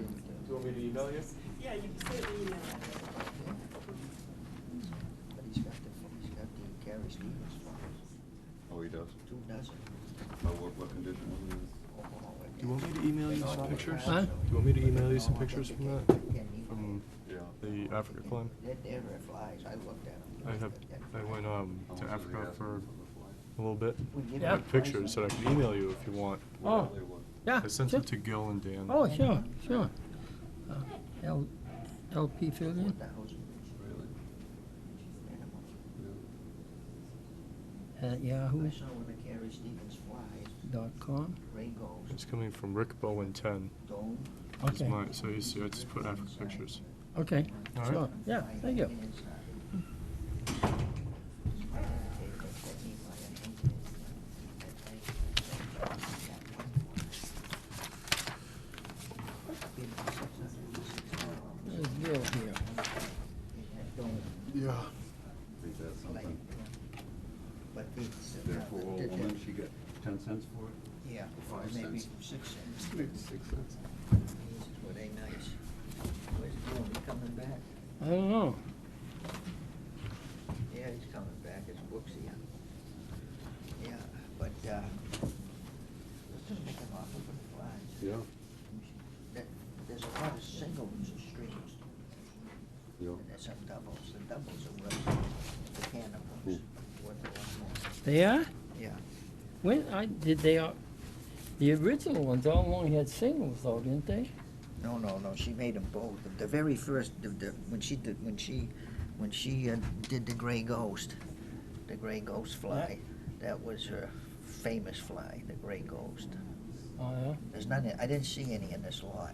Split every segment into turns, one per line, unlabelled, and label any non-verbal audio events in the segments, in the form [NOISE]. me to email you?
Yeah, you can send an email.
But he's got the, he's got the Gary Stevens files,
Oh, he does?
two dozen.
Oh, what, what condition was it in?
Do you want me to email you
They're
some
all
pictures?
files,
Huh?
so-
Do you want me to
but
email you
no,
some
I think
pictures
they
from
can't-
that?
they can't email
From
it.
Yeah.
the um, Africa climb?
They're, they're red flags, I looked at them.
I have, I went, um,
How much
to
was he
Africa
asking
for
the
a little bit.
We give
Yeah.
them
With
a
pictures that I
price
could email you if you want.
flight?
Oh.
Whatever they were.
Yeah.
I sent
sure.
it to Gil and Dan.
Oh, sure, sure. Uh, L, LP
on
Fillion,
4,000
Really?
minimum.
Yeah.
at
I
yahoo
saw when the Gary Stevens flies,
dot com.
Ray goes,
It's coming from Rick Bowen ten.
dome.
It's
Okay,
mine, so you see, I just put Africa pictures.
okay,
All right.
sure, yeah,
fly
thank you.
inside. They- they set me by a hand inside.
There's Bill here.
It had dome.
Yeah.
Think that's
Like,
something.
But it's. uh,
That poor
the-
old
the-
woman, she got ten cents for it?
Yeah, or
five
maybe
cents.
six cents.
Maybe six cents.
Were they nice? Where's Tony coming back?
I don't know.
Yeah, he's coming back, it's Brooksy. Yeah, but, uh, let's just make an offer for the flies.
Yeah,
There- There's a lot of singles and streams,
yeah.
and there's some doubles, the doubles are what, the cannibals,
Hmm.
what they want more.
They are?
Yeah,
When, I, did they, all- the original ones all only had singles though, didn't they?
no, no, no, she made them both, The- the very first, the, the, when she did, when she, when she uh, did the gray ghost, the gray ghost fly, that was her famous fly, the gray ghost.
Oh, yeah.
There's none, in- I didn't see any in this lot.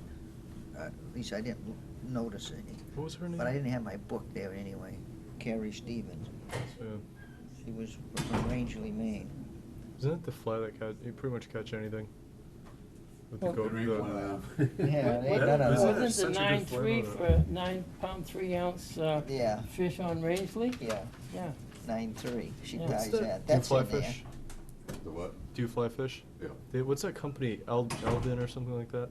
Uh, At least I didn't l- notice any.
What was her name?
But I didn't have my book there anyway. Carrie Stevens.
Yeah.
She was from Rangeley, Maine.
Isn't that the fly that catch, you pretty much catch anything? With the
Well,
goat,
Drink one
the,
of them.
Yeah,
[LAUGHS]
they-
Wa-
no, no, no.
wa-
There's
Wasn't
such
the
a
nine
good
three
flavor.
for, nine pound, three ounce, uh,
Yeah,
fish on Raisley?
yeah,
Yeah,
nine three. She
Yeah.
dies
What's
that.
that? do you
That's
fly
in there.
fish?
The what?
Do you fly fish?
Yeah.
They, what's that company? Eld, Eldin or something like that?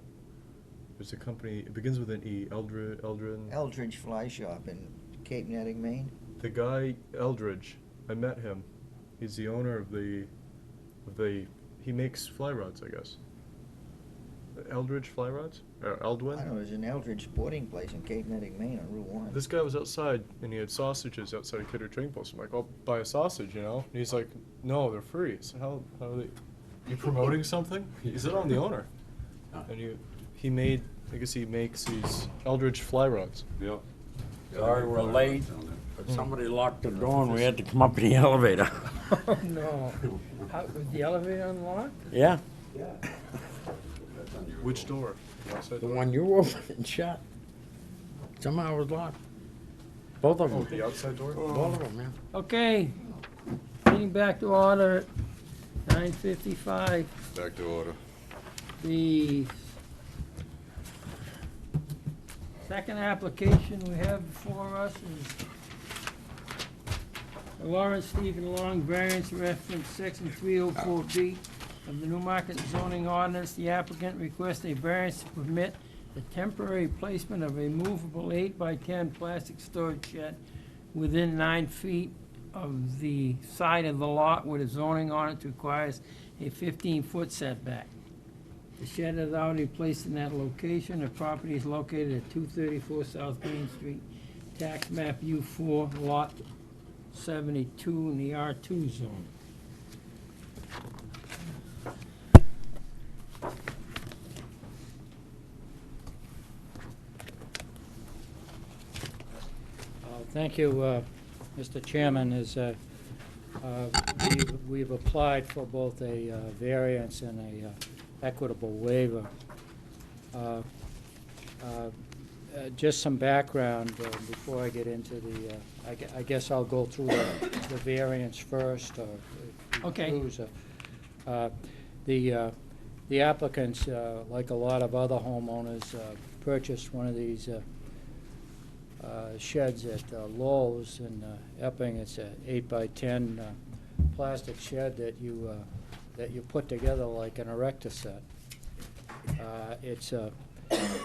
There's a company, it begins with an E. Eldred, Eldrin.
Eldridge Fly Shop in Cape Netting, Maine.
the guy, Eldridge, I met him. He's the owner of the, of the, he makes fly rods, I guess. Eldridge fly rods? Or Eldwin?
I know, there's an Eldridge Sporting Place in Cape Netting, Maine on Route One.
This guy was outside and he had sausages outside of Kidder Trading Post. I'm like, I'll buy a sausage, you know? And he's like, No, they're free. So how how are they you promoting something? He said I'm the owner.
Ah.
And you he made I guess he makes these Eldridge fly rods. Hmm.
Yeah.
Sorry, we're late. But somebody locked the door and we had to come up to the elevator.
[LAUGHS] oh no.
[LAUGHS]
How, was the elevator unlocked?
Yeah,
Which door? The outside
the
door?
one you opened [LAUGHS] and shut. Somehow it was locked. Both of
Oh,
them.
the outside door?
Both of them, yeah.
Okay, getting back to order at nine fifty-five,
Back to order.
the second application we have before us is Lawrence Stephen Long, variance reference section three oh four B of the Newmarket zoning ordinance. The applicant requests a variance to permit the temporary placement of a movable eight by ten plastic storage shed within nine feet of the side of the lot where the zoning ordinance requires a fifteen-foot setback. The shed is already placed in that location. The property is located at two thirty-four South Green Street, tax map U four, lot seventy-two in the R two zone.
Uh, Thank you, uh, Mr. Chairman. Is, uh, uh, we've- we've applied for both a uh, variance and a uh, equitable waiver. Uh, uh, uh, Just some background uh, before I get into the, uh, I gue- I guess I'll go through the the variance first, or if you
Okay.
choose, uh, uh, The uh, the applicants, uh, like a lot of other homeowners, uh, purchased one of these uh, uh, sheds at uh, Lowe's in uh, Epping. It's a eight by ten uh, plastic shed that you, uh, that you put together like an erector set. Uh, It's a